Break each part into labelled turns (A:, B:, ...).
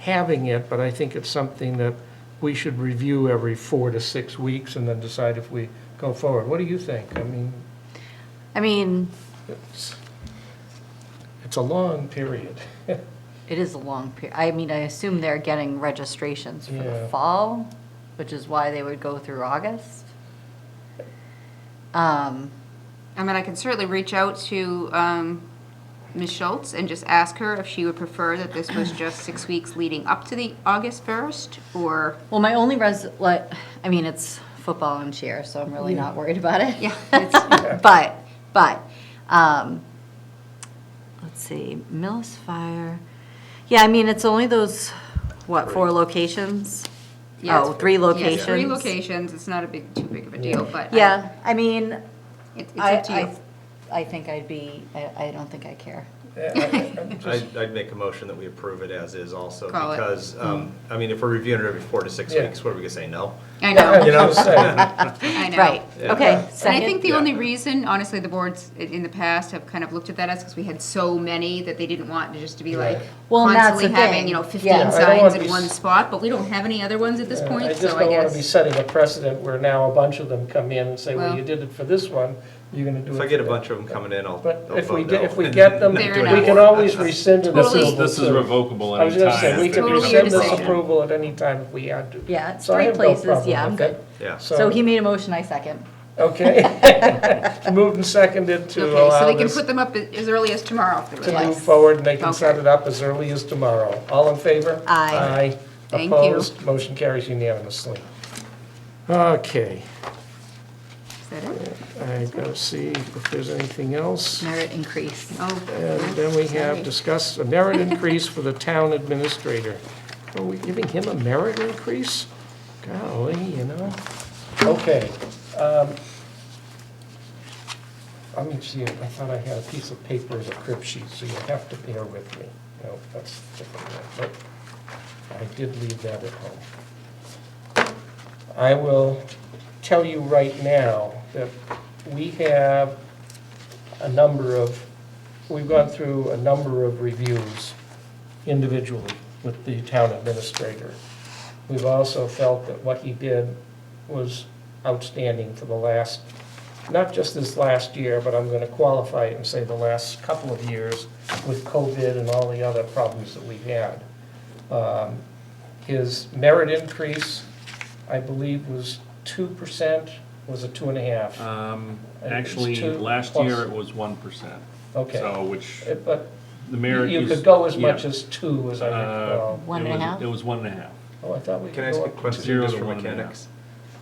A: having it, but I think it's something that we should review every four to six weeks and then decide if we go forward. What do you think? I mean,
B: I mean,
A: it's, it's a long period.
B: it is a long period. I mean, I assume they're getting registrations for
A: Yeah.
B: the fall, which is why they would go through August. Um,
C: I mean, I can certainly reach out to um, Ms. Schultz and just ask her if she would prefer that this was just six weeks leading up to the August 1st, or,
B: well, my only res, like, I mean, it's football and cheer, so I'm really not worried about it.
C: yeah, it's-
B: but but um, let's see, Millis Fire. Yeah, I mean it's only those what four locations?
C: yeah.
B: oh,
C: it's-
B: three
C: yeah, it's
B: locations.
C: Three locations, it's not a big, too big of a deal, but. I-
B: Yeah, I mean,
C: it- It's
B: I,
C: up to you.
B: I I think I'd be. I, I don't think I care.
A: I- I- I'm just-
D: I'd, I'd make a motion that we approve it as is also,
C: Call it.
D: because,
B: Hmm.
D: um, I mean, if we're reviewing it every four to six
A: Yeah.
D: weeks, what are we gonna say, no?
C: I know,
D: You know,
A: I'm saying,
C: I know.
B: Right.
D: Yeah.
B: Okay. Second.
C: And I think the
D: Yeah.
C: only reason, honestly, the boards i- in the past have kind of looked at that as because we had so many that they didn't want to just to be like
B: Well, and that's
C: constantly
B: the
C: having,
B: thing.
C: you know,
B: Yeah. I
C: fifteen
B: don't
C: signs
A: wanna
C: in
A: be
C: one
A: s-
C: spot, but we don't have any other ones at this
A: I
C: point,
A: just
C: so I
A: don't want to be
C: guess.
A: setting a precedent where now a bunch of them come in and say, well,
C: Well-
A: you did it for this one, you're going to do it.
D: If I get a
A: for
D: bunch of them coming in, I'll.
A: But
D: I'll
A: if we,
D: vote
A: get-
D: no
A: if we
D: and
A: get them,
D: not
A: we
D: do it
C: Fair enough.
A: can
D: anymore.
A: always rescind an
C: Totally.
E: This is,
A: approval.
E: this is
A: too.
E: revocable
A: I was
E: anytime.
A: gonna say, we
E: if
A: could
E: they
C: Totally
E: come
A: rescind
E: in.
A: this
C: decision.
A: approval at any time if we had to.
B: Yeah, it's
A: So I
B: three
A: have no
B: places.
A: problem
B: yeah, I'm
A: with
B: good.
A: it.
D: Yeah.
B: So, he made a motion. I second.
A: Okay. Moved and seconded to
C: Okay, so
A: allow
C: they can
A: this
C: put them up a- as early as tomorrow if they would
A: to
C: like.
A: move
B: Yes.
A: forward, and they can set
C: Okay.
A: it up as early as tomorrow. All in favor?
B: Aye.
A: Aye.
C: Thank you.
A: Opposed? Motion carries unanimously. Okay,
C: Is that it?
A: I gotta see if there's anything else.
B: Merit increase.
C: Oh,
A: And then we have discussed a merit increase for the town administrator. Are we giving him a merit increase? Golly, you know? Okay. um, Let me see, I thought I had a piece of paper as a crib sheet, so you'll have to bear with me. No, that's different, one, but I did leave that at home. I will tell you right now that we have a number of, we've gone through a number of reviews individually with the town administrator. We've also felt that what he did was outstanding for the last, not just this last year, but I'm going to qualify it and say the last couple of years with COVID and all the other problems that we've had. Um, His merit increase, I believe, was 2%, was it two and a half?
E: Um,
A: It's
E: Actually,
A: two
E: last
A: plus.
E: year it was one percent.
A: Okay.
E: So, which,
A: Uh, But
E: the
A: you
E: mayor.
A: you
E: used-
A: could go as much
E: yeah.
A: as two, as I
E: Uh,
A: recall.
B: One
E: it
B: and a
E: was-
B: half?
E: It was one and a half.
A: Oh, I thought we could
D: Can I ask
A: go
D: a
A: up.
D: question
E: Zero
D: just
E: to
D: for
E: one and a half.
D: mechanics?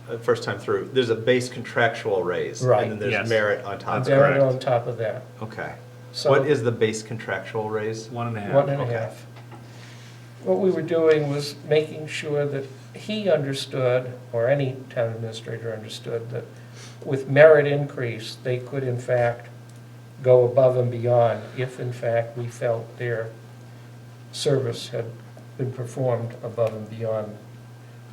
D: Uh, First time through, there's a base contractual raise,
A: Right.
D: and then there's
E: Yes.
D: merit on top of
E: That's
D: it.
A: Merit
E: correct.
A: on top of that.
D: Okay.
A: So-
D: What is the base contractual raise?
E: One and a half.
A: One and a
D: Okay.
A: half. What we were doing was making sure that he understood, or any town administrator understood, that with merit increase, they could in fact go above and beyond if in fact we felt their service had been performed above and beyond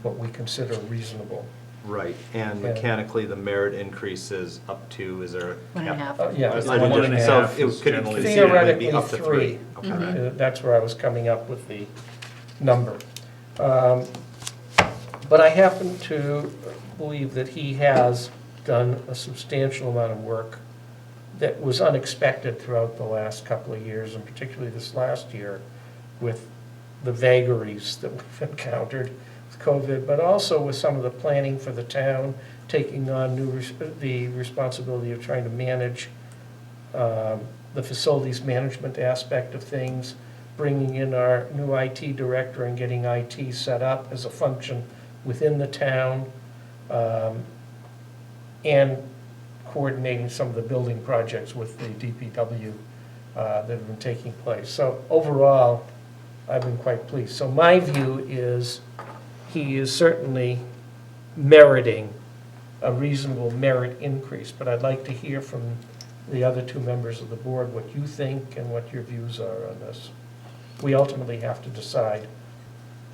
A: what we consider reasonable.
D: Right, and
A: Yeah.
D: mechanically, the merit increase is up to, is there a
B: One and a half.
D: cap?
A: Uh, Yeah.
D: Uh,
A: it's
D: I
E: One
D: didn't-
E: and a
D: so
E: half
D: it
E: is
D: could
E: generally-
D: conceivably be
A: Theoretically,
D: up to
A: three.
D: Okay.
A: Uh, That's where I was coming up with the number. Um, But I happen to believe that he has done a substantial amount of work that was unexpected throughout the last couple of years, and particularly this last year, with the vagaries that we've encountered with COVID, but also with some of the planning for the town, taking on new, res- the responsibility of trying to manage um, the facilities management aspect of things, bringing in our new IT director and getting IT set up as a function within the town, um, and coordinating some of the building projects with the DPW uh, that have been taking place. So overall, I've been quite pleased. So my view is, he is certainly meriting a reasonable merit increase, but I'd like to hear from the other two members of the board what you think and what your views are on this. We ultimately have to decide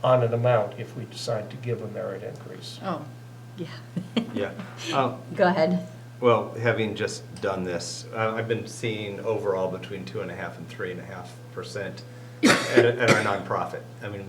A: on an amount if we decide to give a merit increase.
B: Oh, yeah. Mm-hmm.
D: Yeah. Um,
B: Go ahead.
D: Well, having just done this, uh, I've been seeing overall between two and a half and three and a half percent at at our nonprofit. I mean,